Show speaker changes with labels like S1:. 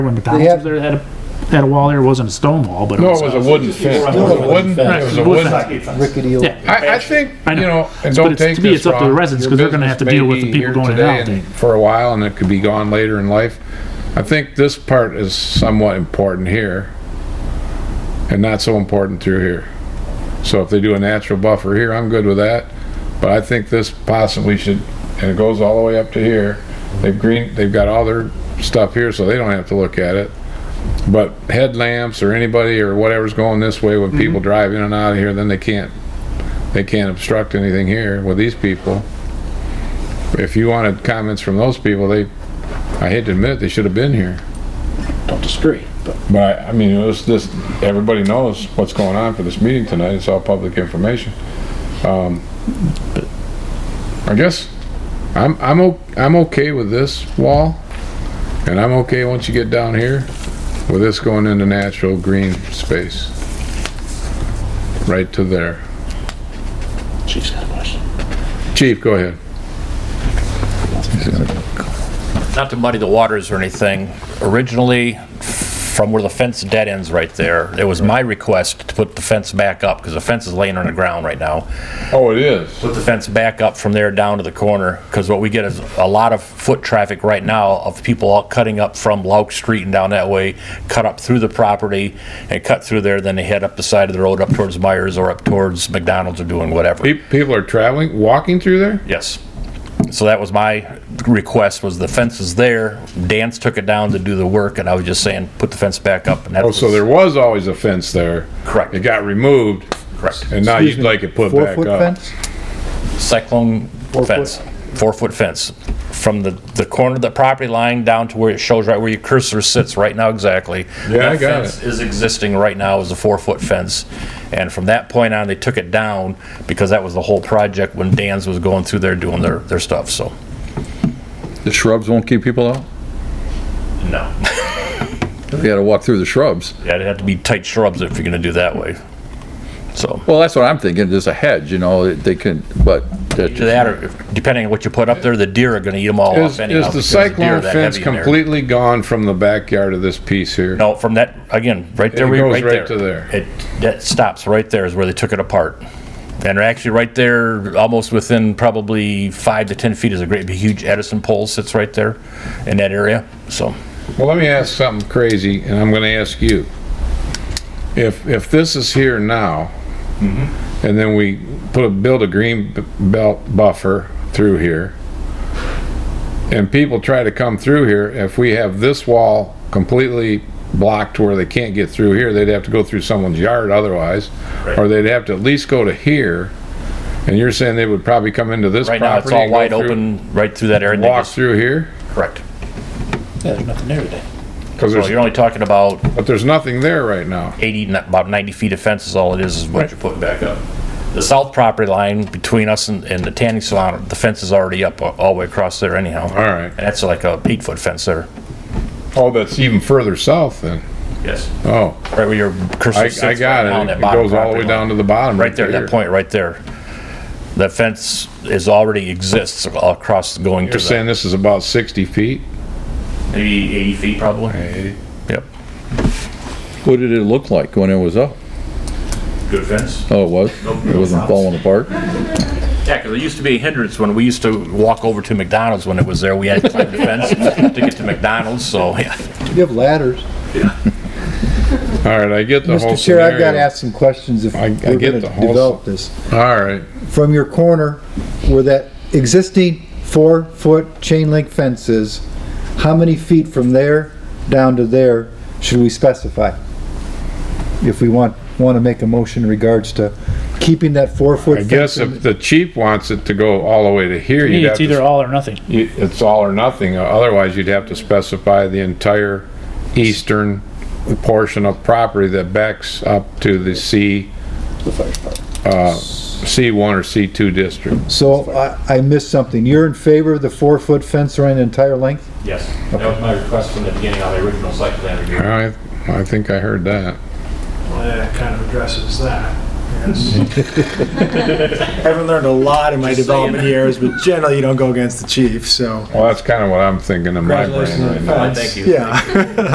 S1: when the township
S2: have-
S1: there had a, had a wall there, it wasn't a stone wall, but it
S3: No,
S1: was.
S3: it was a wooden fence. It was a wooden, it was a wooden. I,
S2: rickety old.
S1: Yeah,
S3: I think,
S1: I
S3: you
S1: know.
S3: know,
S1: But
S3: and don't
S1: it's-
S3: take
S1: to me, it's
S3: this
S1: up to the
S3: wrong.
S1: residents,
S3: Your
S1: 'cause they're gonna have to
S3: business
S1: deal
S3: may
S1: with the
S3: be
S1: people
S3: here
S1: going in and
S3: today
S1: out
S3: and
S1: thing.
S3: For a while and it could be gone later in life. I think this part is somewhat important here and not so important through here. So if they do a natural buffer here, I'm good with that. But I think this possibly should, and it goes all the way up to here. They've green, they've got all their stuff here, so they don't have to look at it. But headlamps or anybody or whatever's going this way, when
S1: Mm-hmm.
S3: people drive in and out of here, then they can't, they can't obstruct anything here with these people. If you wanted comments from those people, they, I hate to admit, it, they should have been here.
S1: don't disagree.
S3: But I, I mean, it was this, everybody knows what's going on for this meeting tonight, it's all public information. Um, I guess, I'm, I'm, o- I'm okay with this wall, and I'm okay once you get down here with this going into natural green space. Right to there.
S1: Chief's got a question.
S3: Chief, go ahead.
S4: not to muddy the waters or anything, originally, from where the fence dead ends right there, it was my request to put the fence back up, because the fence is laying on the ground right now.
S3: Oh, it is.
S4: Put the fence back up from there down to the corner, because what we get is a lot of foot traffic right now of people all cutting up from Lauk Street and down that way, cut up through the property and cut through there, then they head up the side of the road up towards Myers or up towards McDonald's or doing whatever.
S3: Pe- People are traveling, walking through there?
S4: Yes. So that was my request, was the fence is there. Dance took it down to do the work, and I was just saying, put the fence back up, and that
S3: Oh,
S4: was...
S3: so there was always a fence there.
S4: Correct.
S3: It got removed.
S4: Correct.
S3: And now you'd like it put back
S2: Four-foot
S3: up.
S2: fence?
S4: Cyclone fence, four-foot fence. From the, the corner of the property line down to where it shows right where your cursor sits right now exactly.
S3: Yeah, I
S4: That
S3: got
S4: fence Is existing right now as a four-foot fence. And from that point on, they took it down because that was the whole project when Dan's was going through there doing their, their stuff, so,
S5: The shrubs won't keep people out?
S4: no.
S5: You gotta walk through the shrubs.
S4: Yeah, it'd have to be tight shrubs if you're gonna do that way. So,
S5: Well, that's what I'm thinking, there's a hedge, you know, they can, but that-
S4: to that, or if- depending on what you put up there, the deer are gonna eat them all
S3: Is,
S4: off anyhow.
S3: is the
S4: because deer are
S3: cyclone
S4: that
S3: fence
S4: heavy in there.
S3: completely gone from the backyard of this piece here?
S4: No, from that, again, right there,
S3: It
S4: we-
S3: goes
S4: right there.
S3: right to there.
S4: It, that stops right there is where they took it apart. And they're actually right there, almost within probably five to 10 feet is a great, big huge Edison pole sits right there in that area, so.
S3: Well, let me ask something crazy, and I'm gonna ask you. If, if this is here now,
S4: Mm-hmm.
S3: and then we put a, build a green b- belt buffer through here, and people try to come through here, if we have this wall completely blocked where they can't get through here, they'd have to go through someone's yard otherwise, or they'd have to at least go to here, and you're saying they would probably come into this
S4: Right
S3: property?
S4: now, it's all
S3: and go
S4: wide
S3: through-
S4: open, right through that area. and they
S3: Walk
S4: just-
S3: through here?
S4: Correct.
S1: Yeah, there's nothing there today.
S3: Because
S4: So you're
S3: there's,
S4: only talking about
S3: but there's nothing there right now.
S4: 80, n- about 90 feet of fence is all it is, is what you're putting back up. The south property line between us and, and the tanning salon, the fence is already up a- all the way across there anyhow.
S3: All right.
S4: And that's like a eight-foot fence there.
S3: Oh, that's even further south then.
S4: Yes.
S3: Oh,
S4: Right where your
S3: I,
S4: cursor sits.
S3: I got
S4: right now on
S3: it.
S4: that
S3: It
S4: bottom
S3: goes all the
S4: property
S3: way
S4: line.
S3: down to the bottom.
S4: Right there, that point right there. The fence is already exists across going to
S3: You're
S4: the,
S3: saying this is about 60 feet?
S4: maybe 80 feet probably. Yep.
S5: what did it look like when it was up?
S4: Good fence.
S5: Oh, it was? It wasn't falling apart?
S4: Yeah, because it used to be a hindrance when we used to walk over to McDonald's when it was there. We had to climb the fence to get to McDonald's, so, yeah.
S2: You have ladders.
S3: All right, I get the whole
S2: Mr. Chair, I've got to
S3: scenario.
S2: ask some questions if
S3: I-
S2: we're
S3: I get
S2: going to
S3: the whole-
S2: develop this.
S3: All right,
S2: From your corner where that existing four-foot chain link fence is, how many feet from there down to there should we specify? If we want, want to make a motion in regards to keeping that four-foot
S3: I
S2: fence.
S3: guess
S2: in-
S3: if the chief wants it to go all the way to here, you'd have
S1: It's either
S3: to,
S1: all or nothing.
S3: you- it's all or nothing. Otherwise, you'd have to specify the entire eastern portion of property that backs up to the C, uh, C1 or C2 district.
S2: So I, I missed something. You're in favor of the four-foot fence around the entire length?
S4: Yes, that was my request from the beginning on the original site plan
S3: All
S4: review.
S3: right, I think I heard that.
S6: Well, that kind of addresses that, yes. Haven't learned a lot in my development years, but generally you don't go against the chief, so.
S3: Well, that's kind of what I'm thinking in my brain right now.
S4: Thank you.
S6: Yeah.